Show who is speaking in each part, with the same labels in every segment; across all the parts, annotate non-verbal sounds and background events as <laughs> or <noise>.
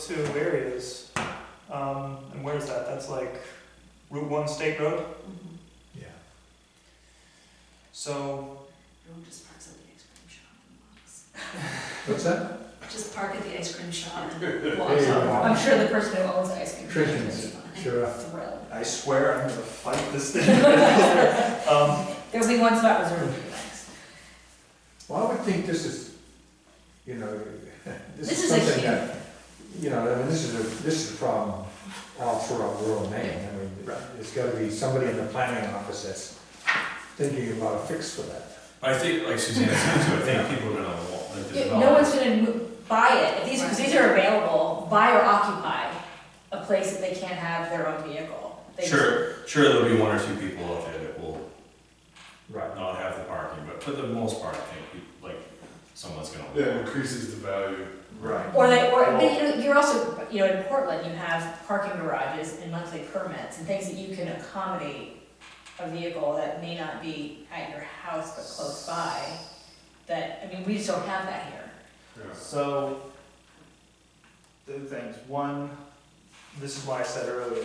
Speaker 1: two areas. Um, and where's that? That's like Route One State Road.
Speaker 2: Mhm.
Speaker 3: Yeah.
Speaker 1: So
Speaker 2: Everyone just parks at the ice cream shop and walks.
Speaker 3: What's that?
Speaker 2: Just park at the ice cream shop and
Speaker 3: There
Speaker 2: walk
Speaker 3: you go.
Speaker 2: up.
Speaker 4: I'm sure the person who owns the ice cream shop is
Speaker 3: Sure.
Speaker 4: <laughs> thrilled.
Speaker 1: I swear I'm gonna fight this thing. <laughs> um,
Speaker 4: There'll be one spot reserved for you next.
Speaker 3: Well, I would think this is, you know, <laughs> this
Speaker 2: This
Speaker 3: is
Speaker 2: is a
Speaker 3: something
Speaker 2: huge-
Speaker 3: that, you know, I mean, this is a, this is a problem all throughout rural Maine. I mean,
Speaker 1: Right.
Speaker 3: there's gotta be somebody in the planning office that's thinking about a fix for that.
Speaker 5: I think, like Suzanne said, too, I think people are gonna want, like, the
Speaker 4: Yeah, No one's
Speaker 5: developers.
Speaker 4: gonna mo- buy it, if these, because these are available, buy or occupy a place that they can't have their own vehicle. They just-
Speaker 5: Sure, sure, there'll be one or two people out there that will
Speaker 3: Right.
Speaker 5: not have the parking, but for the most part, I think, you- like, someone's gonna.
Speaker 6: Yeah, it increases the value.
Speaker 3: Right.
Speaker 4: Or they, or, but you know, you're also, you know, in Portland, you have parking garages and monthly permits and things that you can accommodate a vehicle that may not be at your house but close by, that, I mean, we just don't have that here.
Speaker 6: Yeah.
Speaker 1: so two things. One, this is why I said earlier,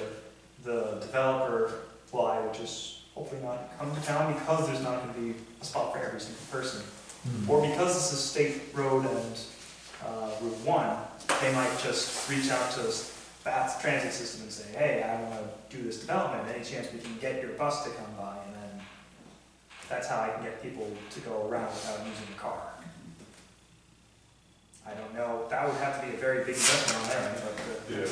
Speaker 1: the developer fly, which is hopefully not coming to town because there's not gonna be a spot for every single person.
Speaker 3: Hmm.
Speaker 1: Or because this is state road and uh, Route One, they might just reach out to the Bath Transit System and say, hey, I wanna do this development, any chance we can get your bus to come by? And then that's how I can get people to go around without using the car. I don't know, that would have to be a very big investment on their end, but,
Speaker 6: Yeah.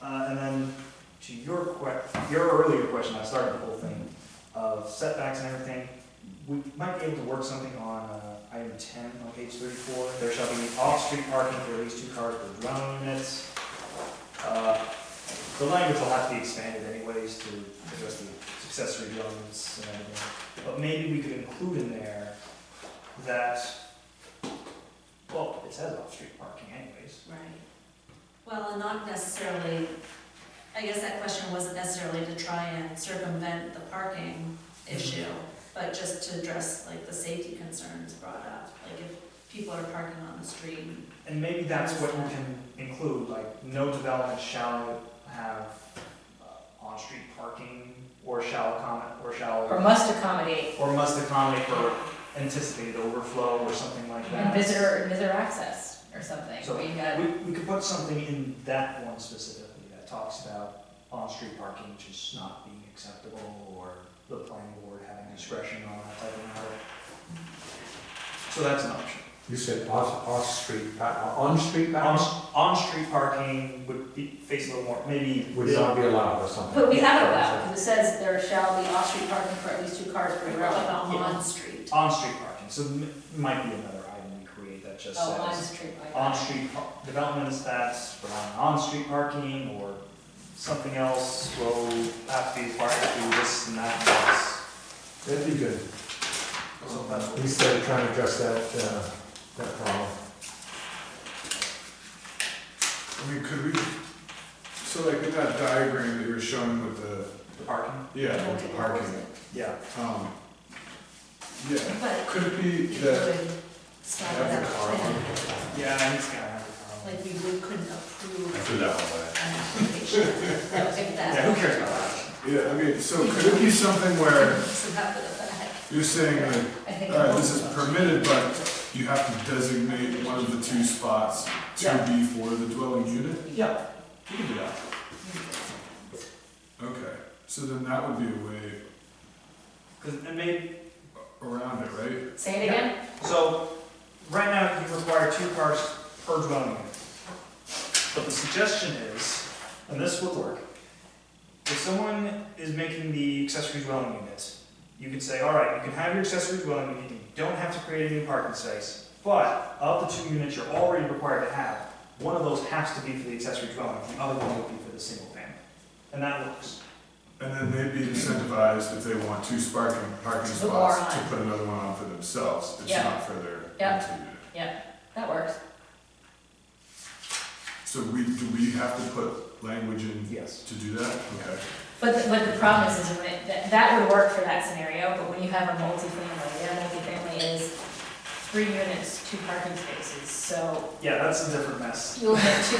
Speaker 1: uh, uh, and then to your que, your earlier question, I started the whole thing, of setbacks and everything, we might be able to work something on uh, item ten on page thirty-four. There shall be off-street parking for at least two cars per dwelling units. Uh, The language will have to be expanded anyways to address the accessory dwellings and everything. But maybe we could include in there that, well, it says off-street parking anyways.
Speaker 2: Right. Well, and not necessarily, I guess that question wasn't necessarily to try and circumvent the parking issue, but just to address like the safety concerns brought up, like if people are parking on the street.
Speaker 1: And maybe that's what you can include, like, no development shall have uh, on-street parking, or shall comment, or
Speaker 4: Or
Speaker 1: shall,
Speaker 4: must accommodate
Speaker 1: or must accommodate for anticipated overflow, or something like
Speaker 4: and
Speaker 1: that.
Speaker 4: visitor, and visitor access or something,
Speaker 1: So
Speaker 4: where you got,
Speaker 1: We, we could put something in that one specifically that talks about on-street parking just not being acceptable, or the planning board having discretion on that type of matter. So that's an option.
Speaker 3: You said off, uh, off-street, pa- on-street
Speaker 1: On,
Speaker 3: bounds
Speaker 1: on-street parking would be, face a little more, maybe.
Speaker 3: would not be allowed or something.
Speaker 4: but we have it allowed, because it says there shall be off-street parking for at least two cars per
Speaker 2: What
Speaker 4: dwelling.
Speaker 2: about
Speaker 1: Yeah.
Speaker 2: on-street?
Speaker 1: On-street parking, so m- might be another item we create that just
Speaker 4: Oh, on
Speaker 1: says,
Speaker 4: street, like that.
Speaker 1: on-street par- developments that rely on on-street parking or something else will have to be required to do this and that and this.
Speaker 3: That'd be good.
Speaker 1: So that's what-
Speaker 3: We started trying to address that, uh, that problem.
Speaker 6: I mean, could we, so like in that diagram that you were showing with the,
Speaker 1: the parking,
Speaker 6: yeah, with the parking,
Speaker 1: yeah.
Speaker 6: um, yeah,
Speaker 2: But
Speaker 6: could it be
Speaker 2: you
Speaker 6: that
Speaker 2: would stop
Speaker 6: have the car
Speaker 2: that,
Speaker 6: on?
Speaker 1: Yeah, I think it's gonna have to
Speaker 2: like we would, couldn't
Speaker 5: I
Speaker 2: approve
Speaker 5: threw that one away.
Speaker 2: an
Speaker 6: <laughs>
Speaker 2: application like
Speaker 1: come. Yeah, who
Speaker 2: that.
Speaker 1: cares about that?
Speaker 6: Yeah, I mean, so could it be something where
Speaker 2: So that would affect.
Speaker 6: you're saying like,
Speaker 4: I think.
Speaker 6: all right, this is permitted, but you have to designate one of the two spots to
Speaker 1: Yeah.
Speaker 6: be for the dwelling unit?
Speaker 1: Yeah, you can do that.
Speaker 6: Okay, so then that would be a way
Speaker 1: Cause, and maybe,
Speaker 6: around it, right?
Speaker 4: Say it again?
Speaker 1: so, right now you require two cars per dwelling unit. But the suggestion is, and this would work, if someone is making the accessory dwelling unit, you could say, all right, you can have your accessory dwelling unit, you don't have to create a new parking space, but of the two units you're already required to have, one of those has to be for the accessory dwelling, the other one would be for the single family. And that works.
Speaker 6: And then they'd be incentivized if they want two sparking, parking
Speaker 4: put more
Speaker 6: spots to
Speaker 4: on.
Speaker 6: put another one on for themselves. It's
Speaker 4: Yeah.
Speaker 6: not for their
Speaker 4: Yeah.
Speaker 6: rental unit.
Speaker 4: That works.
Speaker 6: So we, do we have to put language in
Speaker 1: Yes.
Speaker 6: to do that? Okay.
Speaker 4: But, the- but the problem is, is when it- that, that would work for that scenario, but when you have a multifamily, their multifamily is three units, two parking spaces, so
Speaker 1: Yeah, that's a different mess.
Speaker 4: you'll have two